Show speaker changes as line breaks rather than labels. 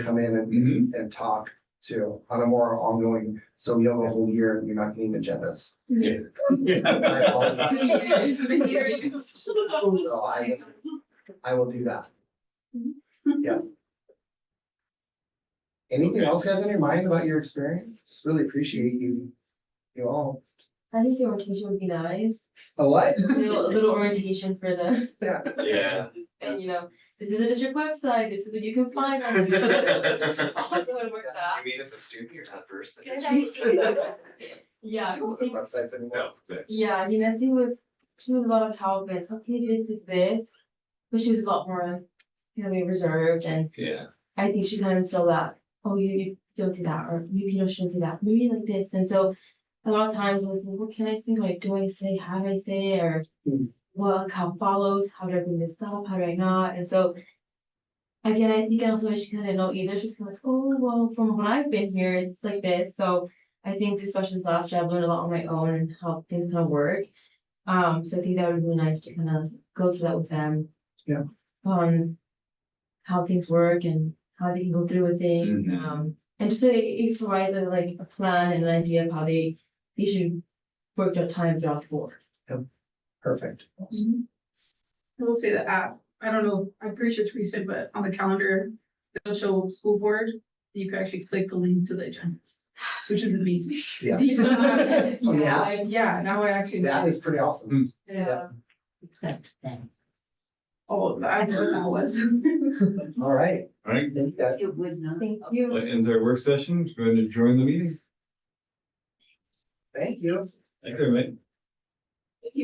come in and,
Mhm.
and talk to on a more ongoing, so you have a whole year and you're not getting agendas. I apologize.
Years, years.
So I, I will do that. Yeah. Anything else guys on your mind about your experience? Just really appreciate you, you all.
I think the orientation would be nice,
A what?
a little, a little orientation for the,
Yeah.
Yeah.
and you know, this is the district website, this is what you can find on. here. I'll go and work that.
mean as a student, you're not first.
Yeah,
I don't
I
look at
think-
Websites anymore.
No, exactly.
yeah, I mean, Nancy was, she was a lot of help with, okay, this is this, but she was a lot more, you know, maybe reserved and
Yeah.
I think she kind of instilled that, oh, you, you don't do that, or maybe you shouldn't do that, maybe like this, and so. A lot of times, like, well, what can I say, like, do I say, have I say, or,
Hmm.
well, how follows, how do I bring this up, how do I not, and so. Again, I think also she kind of know either, she's kinda like, oh, well, from when I've been here, it's like this, so. I think these questions last year, I've learned a lot on my own and how things kind of work. Um, so I think that would be really nice to kind of go through that with them.
Yeah.
On how things work and how they can go through with things,
Mhm.
um, and just to each provide uh, like a plan and an idea of how they, they should work their time throughout the board.
Perfect.
I will say the app, I don't know, I'm pretty sure Teresa, but on the calendar, it'll show school board, and you can actually click the link to the agendas, which is amazing.
Yeah.
Yeah, I-
Yeah, now I actually.
That
know
is pretty awesome.
Yeah.
Except that
Oh, I know what that was.
All right.
All right,
Mm. Thank you guys.
it would not.
thank you.
that ends our work session. Going to join the meeting.
Thank you.
Thank you, mate.